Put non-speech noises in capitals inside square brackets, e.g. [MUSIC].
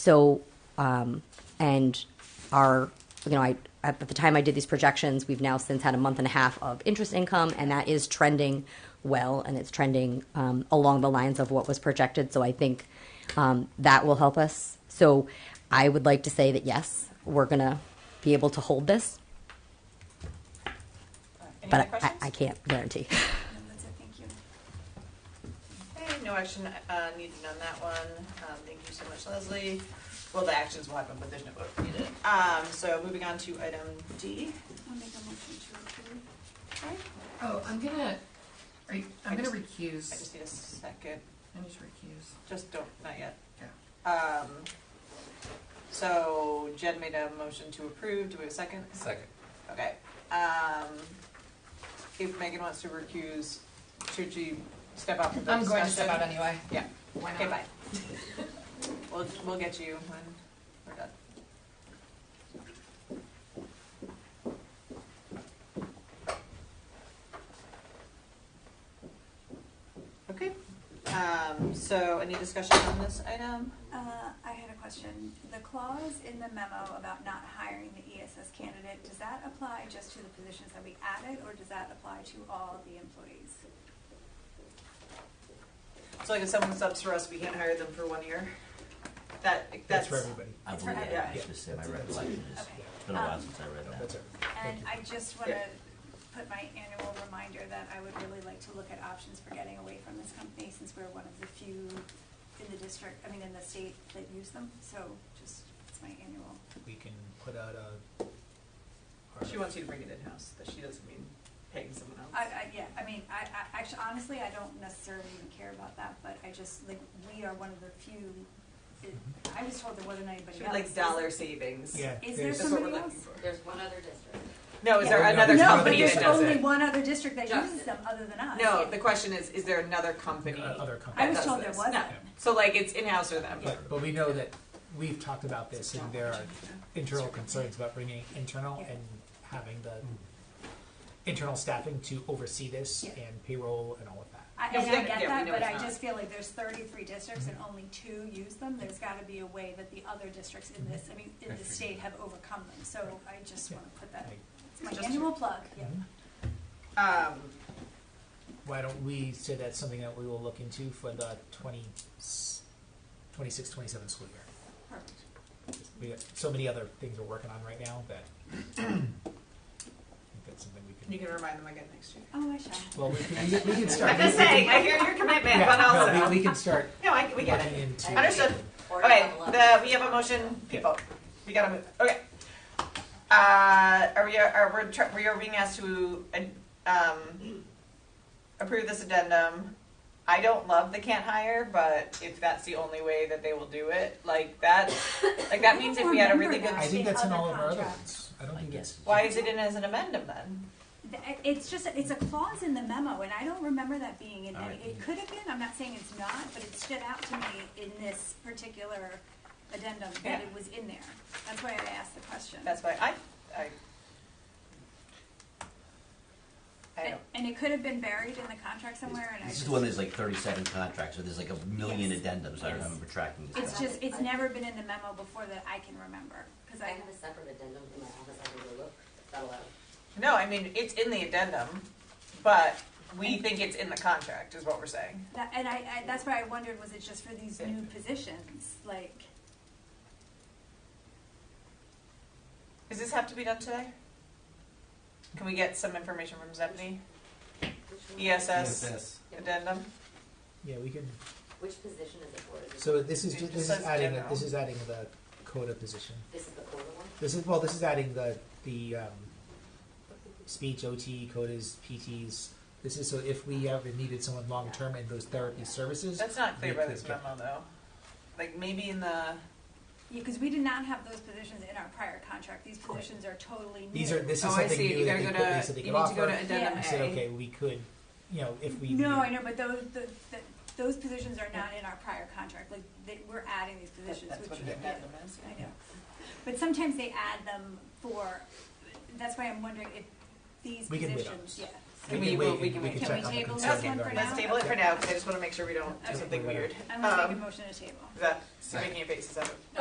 So, um, and our, you know, I at the time I did these projections, we've now since had a month and a half of interest income, and that is trending well, and it's trending um, along the lines of what was projected. So I think um, that will help us. So I would like to say that yes, we're gonna be able to hold this, Any other but I, questions? I can't guarantee. No, that's it, thank you. Okay, no action uh, needed on that one. Um, Thank you so much, Leslie. Well, the actions will happen, but there's no vote needed. Um, So moving on to item D. I'll make a motion to approve. Sorry, Oh, I'm gonna, are you, I I'm gonna just- I recuse. just need a second, I need to recuse. just don't, not yet. Um, So Jen made a motion to approve, do we have a second? Second. Okay. Um, If Megan wants to recuse, should she step out for the I'm discussion? going to step out anyway. Yeah. Why Okay, not? [LAUGHS] bye. We'll, we'll get you when we're done. Okay, um, so any discussion on this item? Uh, I had a question. The clause in the memo about not hiring the ESS candidate, does that apply just to the positions that we added, or does that apply to all the employees? So like if someone subs for us, we can't hire them for one year? That, That's that's. for everybody. I It's believe for that, everybody. I should say, my recollection is, Okay. it's been a while Um, since I read That's that. everybody. And Thank you. I just want to Yeah. put my annual reminder that I would really like to look at options for getting away from this company, since we're one of the few in the district, I mean, in the state that use them, so just, it's my annual. We can put out a. She wants you to bring it in-house, that she doesn't mean paying someone else. I, I, yeah, I mean, I, I, actually, honestly, I don't necessarily even care about that, but I just, like, we are one of the few, I was told there wasn't anybody She else. would like dollar savings. Yeah. Is there there's- That's what we're somebody looking else? for. There's one other district. No, is there Yeah. another No, No, but company there's that does only it? one other district that Just- uses them, other than us. No, the question is, is there another company? Uh, other company. I was that does told there this? wasn't. No. So like it's in-house or them? But, but we know that we've talked about this and there are internal concerns about bringing internal Yeah. and having the internal staffing to oversee this Yeah. and payroll and all of that. I, No, and we I know- get yeah, we that, know but it's I not. just feel like there's thirty-three districts and only two use them, there's gotta be a way that the other districts in this, I mean, in the state have overcome them, so I just wanna put that, Like, it's my Just- annual plug, yeah. Mm-hmm. Um, Why don't we say that's something that we will look into for the 20, 26, 27 school year? Perfect. We got so many other things we're working on right now that [CLEARS THROAT] I think that's something we you could. can remind them again next [LAUGHS] year. Oh, I shall. Well, we can, we can start. I'm just saying, I hear your commitment, but [LAUGHS] Yeah, no, we, also, we can start no, I, [LAUGHS] we get looking it. into. Understood. Or Okay, level up. the, we have a motion, people. We gotta move, okay. Uh, are we, are we, tr- we are being asked to, um, approve this addendum. I don't love the can't hire, but if that's the only way that they will do it, like that, like that means if we had a really good, Remember I think that's in Other all of our other contract. ones. I don't I think guess. it's. why is it in as an amendum then? Th- It's just, it's a clause in the memo, and I don't remember that being in any, it could have been, I'm not saying it's not, but it stood out to me in this particular addendum Yeah. that it was in there. That's why I asked the question. That's why I, I. I And don't, and it could have been buried in the contract somewhere, and I This just, is the one that's like thirty-seven contracts, so there's like a million Yes. addendums, I Yes. remember tracking this. it's down. just, it's never been in the memo before that I can remember, because I I, have a separate addendum in my office, I can go look, It's not allowed. no, I mean, it's in the addendum, but we think it's in the contract is what we're saying. that- and I, I, that's why I wondered, was it just for these Yeah. new positions, like, Does this have to be done today? Can we get some information from Stephanie? Which one- E ESS addendum? Yeah, we can. Which position is it for? Is it- So this is It ju- just this is says adding general. this is adding the coda position. This is the older one? This is well, this is adding the the um, speech OT codas PTs. This is so if we ever needed someone long term in those therapy services. That's not clear we by could this get- memo though. Like maybe in the, yeah, because we did not have those positions in our prior contract, these positions are totally new. These are this is oh, I something see, new you that gotta they go put, to, so they you could need to go offer. to addendum Yeah. A. We said okay, we could, you know, if we No, needed- I know, but those, the, the, those positions are not in our prior contract, like, they, we're adding these positions, That's what which, an yeah, addendum is. I know. But sometimes they add them for, that's why I'm wondering if these We can wait on positions, this. yeah. We so- will- wait and we can wait. Can check we on the table this consent one for agenda. Let's table it for now, because I just wanna make sure we don't do Okay. something weird. I'm gonna make Um, a motion to table. Is that, making a basis of it?